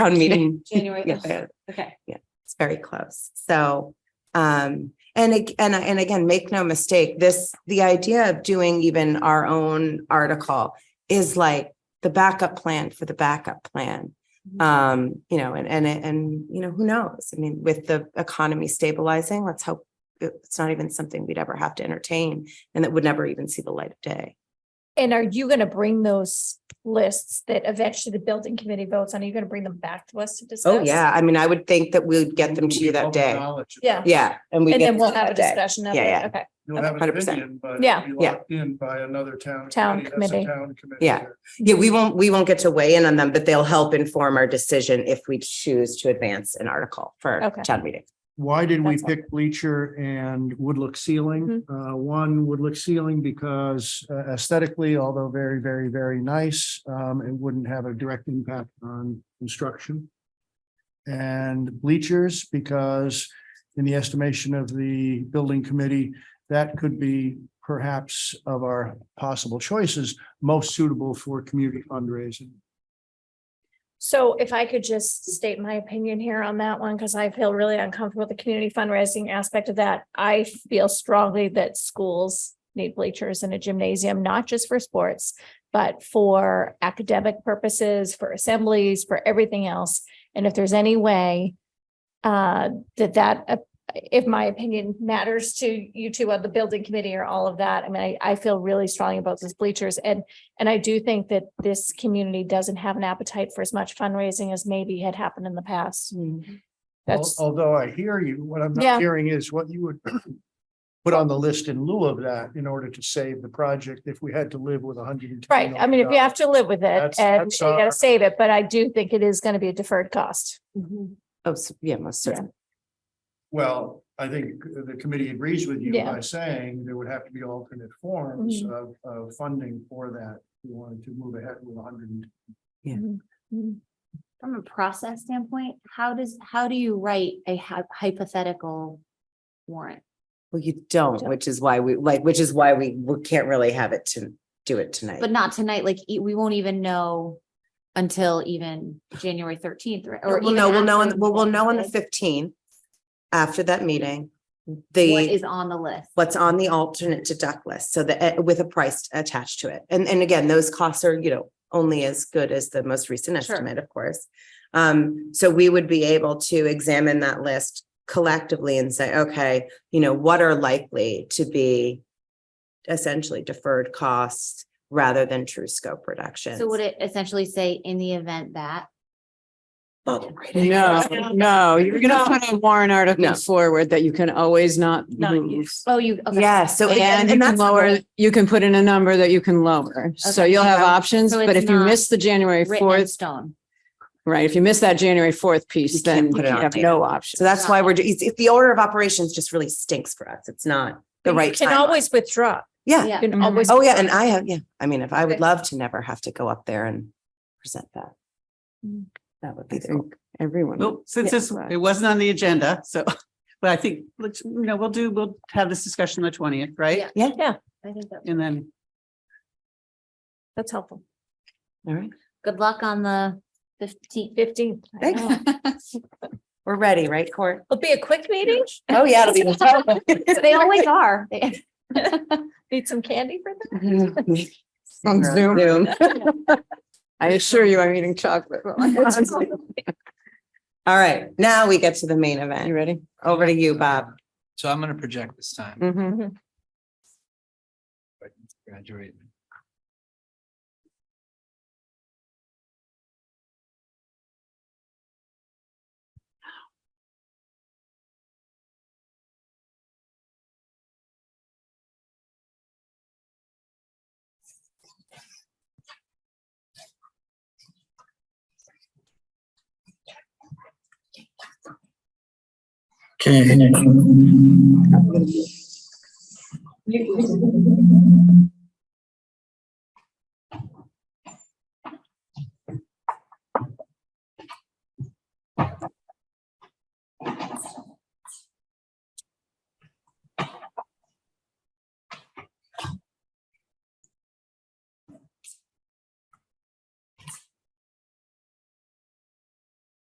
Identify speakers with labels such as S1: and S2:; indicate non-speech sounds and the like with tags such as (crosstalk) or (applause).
S1: town meeting. (laughs)
S2: January.
S1: Yeah,
S2: ugh,
S1: yeah,
S2: Okay,
S1: it's very close. So, um, and ag- and and again, make no mistake, this, the idea of doing even our own article is like the backup plan for the backup plan.
S2: Mhm.
S1: Um, you know, and and and, you know, who knows? I mean, with the economy stabilizing, let's hope it's not even something we'd ever have to entertain and that would never even see the light of day.
S3: And are you gonna bring those lists that eventually the building committee votes on? Are you gonna bring them back to us to discuss?
S1: Oh, yeah. I mean, I would think that we'd get them to you that day.
S3: Yeah.
S1: Yeah. And we
S3: And then
S1: get,
S3: we'll have a
S1: that day.
S3: discussion of
S1: Yeah,
S3: it.
S1: yeah.
S3: Okay.
S4: You don't have an
S1: 100%.
S4: opinion, but it'll
S3: Yeah.
S4: be
S1: Yeah.
S4: locked In by another town.
S3: Town
S4: That's a
S3: committee.
S4: Town committee.
S1: Yeah.
S4: there.
S1: yeah, we won't, we won't get to weigh in on them, but they'll help inform our decision if we choose to advance an article for
S3: Okay.
S1: town meeting.
S5: Why did we
S3: That's all. Mm-hmm.
S5: pick bleacher and wood look ceiling? Uh, one wood look ceiling because uh, aesthetically, although very, very, very nice, um, it wouldn't have a direct impact on construction. And bleachers because in the estimation of the building committee, that could be perhaps of our possible choices, most suitable for community fundraising.
S3: So if I could just state my opinion here on that one, because I feel really uncomfortable with the community fundraising aspect of that. I feel strongly that schools need bleachers and a gymnasium, not just for sports, but for academic purposes, for assemblies, for everything else. And if there's any way uh, that that, uh, if my opinion matters to you two of the building committee or all of that, I mean, I, I feel really strongly about those bleachers. And and I do think that this community doesn't have an appetite for as much fundraising as maybe had happened in the past.
S1: Mm-hmm.
S5: Al-
S3: That's,
S5: Although I hear you, what I'm
S3: Yeah.
S5: not hearing is what you would (clears throat) put on the list in lieu of that in order to save the project if we had to live with a hundred and ten.
S3: right, I mean, if you have to live with it
S5: uh, That's-
S3: and you
S5: that's
S3: gotta
S5: our-
S3: save it, but I do think it is gonna be a deferred cost.
S1: Oh, so- yeah, most certainly.
S4: Well, I think the committee agrees with you
S3: Yeah.
S4: by saying there would have to be alternate forms
S3: Mhm.
S4: of, of funding for that. if We wanted to move ahead with hundred and
S2: from a process standpoint, how does, how do you write a hy- hypothetical warrant?
S1: Well, you don't, which is why we like, which is why we we can't really have it to do it tonight.
S2: But not tonight, like, e- we won't even know until even January thirteenth, or. or
S1: We'll
S2: even
S1: know, we'll know, on-
S2: after
S1: we'll, we'll know on the
S2: what
S1: fifteenth after that meeting. The,
S2: Is on the list.
S1: what's on the alternate deduct list, so that, eh, with a price attached to it. And, and again, those costs are, you know, only as good as the most recent
S2: Sure.
S1: estimate, of course. Um, so we would be able to examine that list collectively and say, okay, you know, what are likely to be essentially deferred costs rather than true scope reductions.
S2: So would it essentially say in the event that?
S1: Bubble right in.
S6: No, no, you're gonna
S3: No.
S6: put a warrant
S1: No.
S6: article forward that you can always not
S3: Not
S6: move.
S2: Oh, you, okay.
S1: Yeah, so. it-
S6: And you can
S1: that's the whole-
S6: lower, you can put in a number that you can lower. So
S2: Okay.
S6: you'll have
S2: So-
S6: options,
S2: so
S6: but
S2: it's
S6: if you
S2: not
S6: miss the January
S2: Written in
S6: fourth,
S2: stone.
S6: right, if you miss that January fourth
S1: You
S6: piece,
S1: can't
S6: then
S1: put
S6: you
S1: it on
S6: have
S1: later.
S6: no option.
S1: So that's why we're, do- it's, it's the order of operations just really stinks for us. It's not the
S3: You
S1: right
S3: Can
S1: time.
S3: always withdraw.
S1: Yeah.
S2: Yeah.
S3: You can
S6: Mhm.
S3: always.
S1: Oh, yeah, and I have, yeah, I mean, if I would
S3: Okay.
S1: love to never have to go up there and present that. That would
S6: I
S1: be Mm. cool.
S6: think everyone.
S7: Well, since
S6: Yeah.
S7: this, it wasn't on the agenda, so, but I think, let's, you know, we'll do, we'll have this discussion on the twentieth, right?
S2: Yeah. I think that,
S7: And then,
S3: That's helpful.
S1: All right,
S2: good luck on the fifteenth.
S3: Fifteen.
S1: Thank you. we're ready, right, Court?
S3: It'll be a quick meeting.
S1: (laughs) Oh, yeah, it'll (laughs)
S2: They always are. They-
S3: (laughs) Need some candy for them.
S1: be.
S6: On Zoom.
S1: Zoom.
S6: (laughs) I assure you, I'm
S1: (laughs)
S6: eating chocolate. (laughs)
S1: All right, now we get to the main
S6: You
S1: event.
S6: ready?
S1: Over to you, Bob.
S8: So I'm gonna project this
S1: Mm.
S8: time,
S6: Mhm.
S1: Mm-hmm.
S8: if I can graduate.
S9: Okay.